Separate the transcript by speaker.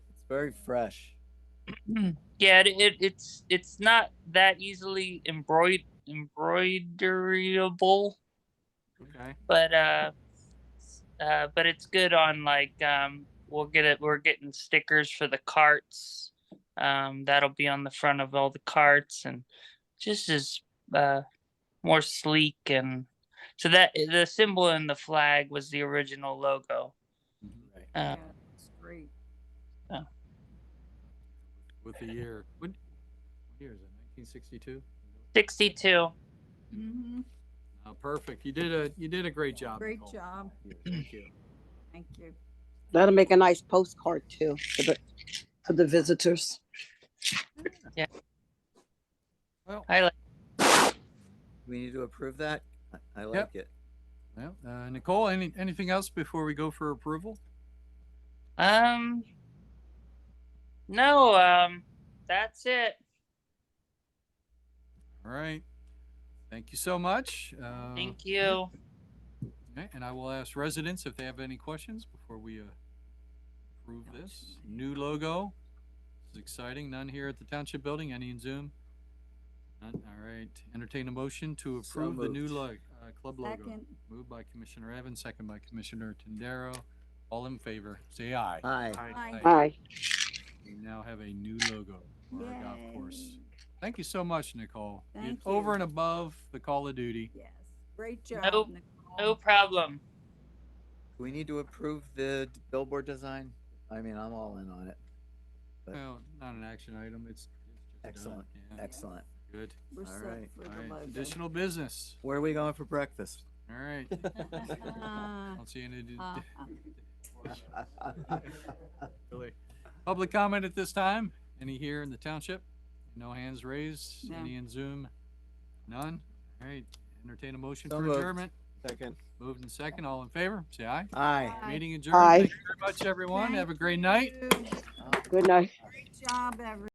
Speaker 1: very fresh.
Speaker 2: Yeah, it, it, it's it's not that easily embroid embroiderable,
Speaker 3: Okay.
Speaker 2: but uh, uh, but it's good on like um, we'll get it. We're getting stickers for the carts. Um, that'll be on the front of all the carts and just is uh more sleek and so that the symbol in the flag was the original logo.
Speaker 4: Mm-hmm.
Speaker 1: Right.
Speaker 2: Uh,
Speaker 4: It's great.
Speaker 3: With the year. What, what year is it? 1962.
Speaker 2: Sixty-two.
Speaker 4: Mhm.
Speaker 3: Oh, perfect. You did a you did a great job.
Speaker 4: Great
Speaker 3: Nicole.
Speaker 4: job.
Speaker 3: Thank you.
Speaker 4: Thank you.
Speaker 5: That'll make a nice postcard too for the, for the visitors.
Speaker 3: Well,
Speaker 2: I like.
Speaker 1: We need to approve that. I- I like
Speaker 3: Yep.
Speaker 1: it.
Speaker 3: well, uh, Nicole, any anything else before we go for approval?
Speaker 2: Um. No. Um. That's it.
Speaker 3: All right. Thank you so much. Uh,
Speaker 2: Thank you.
Speaker 3: Okay, and I will ask residents if they have any questions before we uh, approve this. New logo. It's exciting. None here at the Township Building. Any in Zoom? None. All right. Entertain a motion
Speaker 1: So
Speaker 3: to approve the new
Speaker 1: moved.
Speaker 3: lo- uh, club logo.
Speaker 4: Second,
Speaker 3: Moved by Commissioner Evans, second by Commissioner Tendero. All in favor, say aye.
Speaker 1: Hi.
Speaker 4: Aye.
Speaker 5: Aye.
Speaker 3: We now have a new logo for our golf
Speaker 4: Yay.
Speaker 3: course. Thank you so much, Nicole. You-
Speaker 4: Thank
Speaker 3: Over
Speaker 4: you.
Speaker 3: and above the call of duty.
Speaker 4: yes. Great
Speaker 2: Nope.
Speaker 4: job,
Speaker 2: No
Speaker 4: Nicole.
Speaker 2: problem.
Speaker 1: Do we need to approve the d- billboard design? I mean, I'm all in on it. But-
Speaker 3: Well, not an action item, it's. it's just done.
Speaker 1: Excellent.
Speaker 3: Yeah,
Speaker 1: Excellent.
Speaker 3: Good.
Speaker 4: We're
Speaker 1: All
Speaker 4: set
Speaker 1: right.
Speaker 4: for
Speaker 3: All
Speaker 4: the
Speaker 3: right,
Speaker 4: logo.
Speaker 3: additional business.
Speaker 1: Where are we going for breakfast?
Speaker 3: All right, I
Speaker 4: Ah,
Speaker 3: don't see any.
Speaker 4: ah, ah.
Speaker 3: Really. Public comment at this time? Any here in the township? No hands raised?
Speaker 4: No.
Speaker 3: Any in Zoom? None? All right, entertain a motion
Speaker 1: So
Speaker 3: for
Speaker 1: moved.
Speaker 3: adjournment.
Speaker 1: Second.
Speaker 3: Moved in second, all in favor, say aye.
Speaker 1: Aye.
Speaker 4: Aye.
Speaker 3: Meeting adjourned.
Speaker 5: Aye.
Speaker 3: Thank you very much, everyone. Have a great night.
Speaker 4: Thank you.
Speaker 5: Good night.
Speaker 4: Great job, everyone.